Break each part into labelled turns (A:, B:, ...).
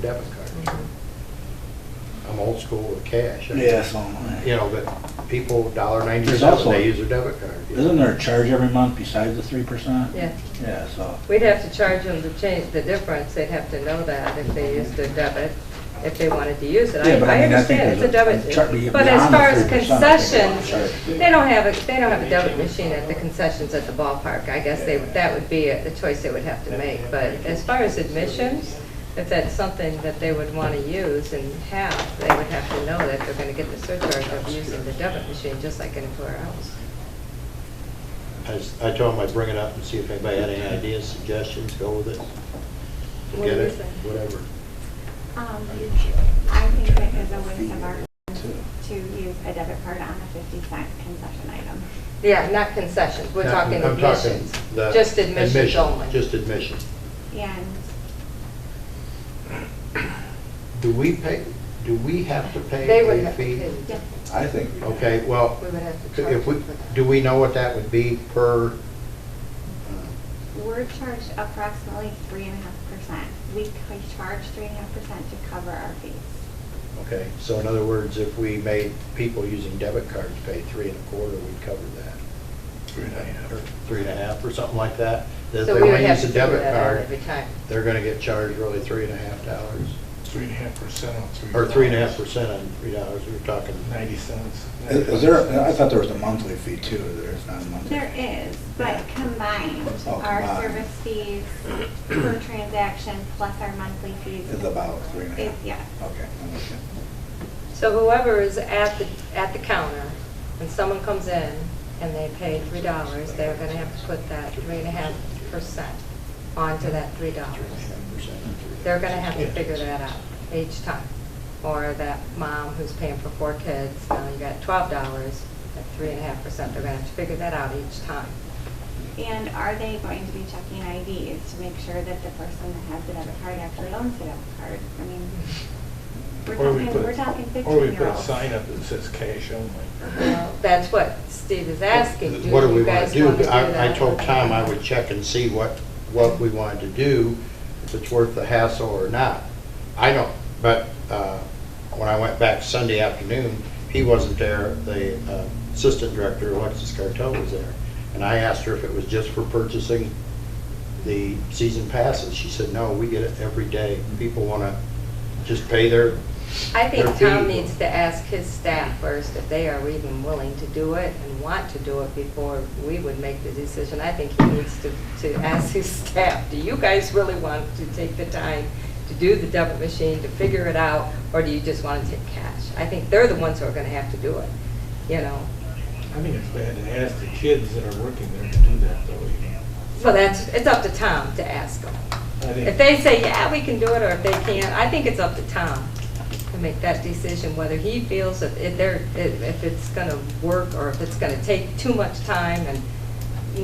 A: debit card. I'm old school with cash. I-
B: Yes, online.
A: You know, but people, dollar
B: There's
A: ninety-seven,
B: also-
A: they use their debit card. you know.
B: Isn't there a charge every month besides the three percent?
C: Yeah,
B: Yeah, so,
C: we'd have to charge them to change the difference, they'd have to know that if they used their debit, if they wanted to use it.
B: Yeah, but I mean, I think
C: understand it's a
B: there's a- a chart-
C: debit,
B: be-
C: but as
B: beyond the
C: far as
B: 3%, I think there's a
C: concessions,
B: chart.
C: they don't have, a they don't have a debit machine at the concessions at the ballpark. I guess they, that would be a- the choice they would have to make, but as far as admissions, if that's something that they would want to use and have, they would have to know that they're going to get the surcharge of using the debit machine, just like anywhere else.
A: I s- I told them I'd bring it up and see if anybody had any ideas, suggestions, go with it.
C: What
A: Get
C: do you
A: it,
C: say?
A: Whatever.
D: Um, I think that is a waste of our time to use a debit card on a fifty cent concession item.
C: Yeah, not concessions, we're
A: Now,
C: talking
A: I'm talking
C: admissions,
A: the
C: just admissions
A: admission,
C: only.
A: Just admission.
D: And
A: Do we pay, do we have to
C: They would
A: pay a
C: have to
A: fee?
C: pay,
D: yes,
B: I think.
A: Okay, well,
C: we would have to charge
A: if we,
C: them for that.
A: do we know what that would be per? uh,
D: we're charged approximately three and a half percent. We c- charge three and a half percent to cover our fees.
A: Okay, so in other words, if we made people using debit cards pay three and a quarter, we'd cover that.
B: Three and a half.
A: Or three and a half or something like that. That If they
C: So we would
A: want to
C: have
A: use
C: to
A: a
C: figure
A: debit
C: that out
A: card,
C: every time.
A: they're going to get charged really three and a half dollars.
E: Three and a half percent on three.
A: Or three and a half percent on three dollars, we were talking.
E: Ninety cents.
B: Is is there, I thought there was a monthly fee too, there's not a monthly.
D: There is, but combined,
B: Oh,
D: our
B: combined.
D: service fees per transaction plus our monthly fees.
B: It's about three and a
D: Is,
B: half.
D: yeah.
B: Okay, I'm with you.
C: So whoever is at the, at the counter, when someone comes in and they pay three dollars, they're gonna have to put that three and a half percent onto that three dollars. They're gonna have to figure that out each time. Or that mom who's paying for four kids, now you got twelve dollars at three and a half percent, they're gonna have to figure that out each time.
D: And are they going to be checking IDs to make sure that the person that has the debit card actually owns the debit card? I mean, we're
E: Or we
D: talking,
E: put-
D: we're talking
E: Or we put a
D: fifteen-year-olds.
E: sign up that says cash only.
C: Well, That's what Steve is asking.
A: What do we
C: you
A: want
C: guys
A: to do?
C: wanna
A: I, I
C: that?
A: told Tom I would check and see what, what we wanted to do, if it's worth the hassle or not. I don't, but, uh, when I went back Sunday afternoon, he wasn't there, the uh, assistant director, Alexis Cartel, was there. And I asked her if it was just for purchasing the season passes. She said, no, we get it every day. People want to just pay their,
C: I think
A: Their
C: Tom
A: fee.
C: needs to ask his staff first if they are even willing to do it and want to do it before we would make the decision. I think he needs to, to ask his staff, do you guys really want to take the time to do the debit machine, to figure it out, or do you just want to take cash? I think they're the ones who are gonna have to do it, you know?
E: I think it's bad to ask the kids that are working there to do that though. you know.
C: So that's, it's up to Tom to ask them.
E: I think-
C: If they say, yeah, we can do it, or if they can't, I think it's up to Tom to make that decision, whether he feels that if they're, if if it's gonna work, or if it's gonna take too much time and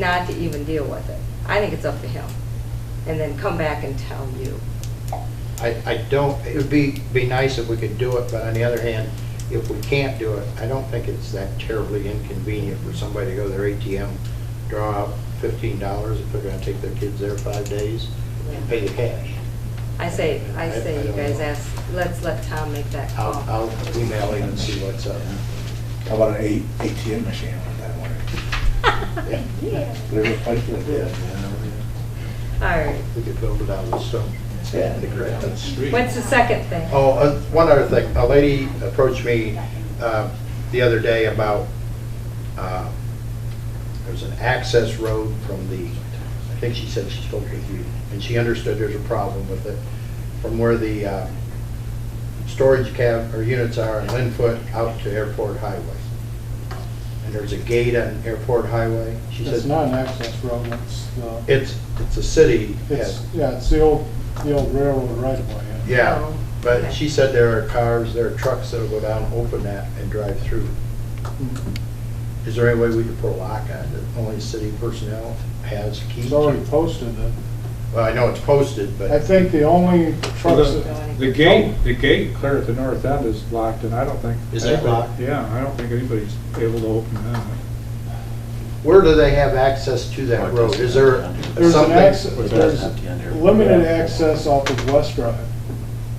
C: not to even deal with it. I think it's up to him. And then come back and tell you.
A: I, I don't, it would be, be nice if we could do it, but on the other hand, if we can't do it, I don't think it's that terribly inconvenient for somebody to go to their ATM, draw out fifteen dollars if they're gonna take their kids there five days and pay the cash.
C: I say, I say you guys ask, let's let Tom make that
A: I'll,
C: call.
A: I'll email him and see what's up.
B: How about an eight- ATM machine with that one? There's a place for
A: Yeah.
B: that.
C: All right.
A: We could build it out of stone.
B: Yeah.
A: The
E: Down
A: ground.
E: the street.
C: What's the second thing?
A: Oh, uh, one other thing, a lady approached me uh, the other day about, uh, there's an access road from the, I think she said she spoke with you, and she understood there's a problem with it, from where the uh, storage cab, or units are in Linfoot out to Airport Highway. And there's a gate on Airport Highway. She
F: It's
A: said,
F: not an access road, it's, uh,
A: it's, it's a city.
F: it's, yeah, it's the old, the old railroad right of way.
A: Yeah,
C: Oh, okay.
A: but she said there are cars, there are trucks that'll go down, open that and drive through. Is there any way we could put a lock on it? Only city personnel has keys?
F: It's already posted, that-
A: Well, I know it's posted,
F: I
A: but,
F: think the only trucks, that-
C: Going.
G: The gate, the gate clear at the north end is locked, and I don't think.
A: Is that locked?
G: Yeah, I don't think anybody's able to open that.
A: where do they have access to that road? Is there
F: there's an
A: something?
F: access, there's limited access off of West Drive.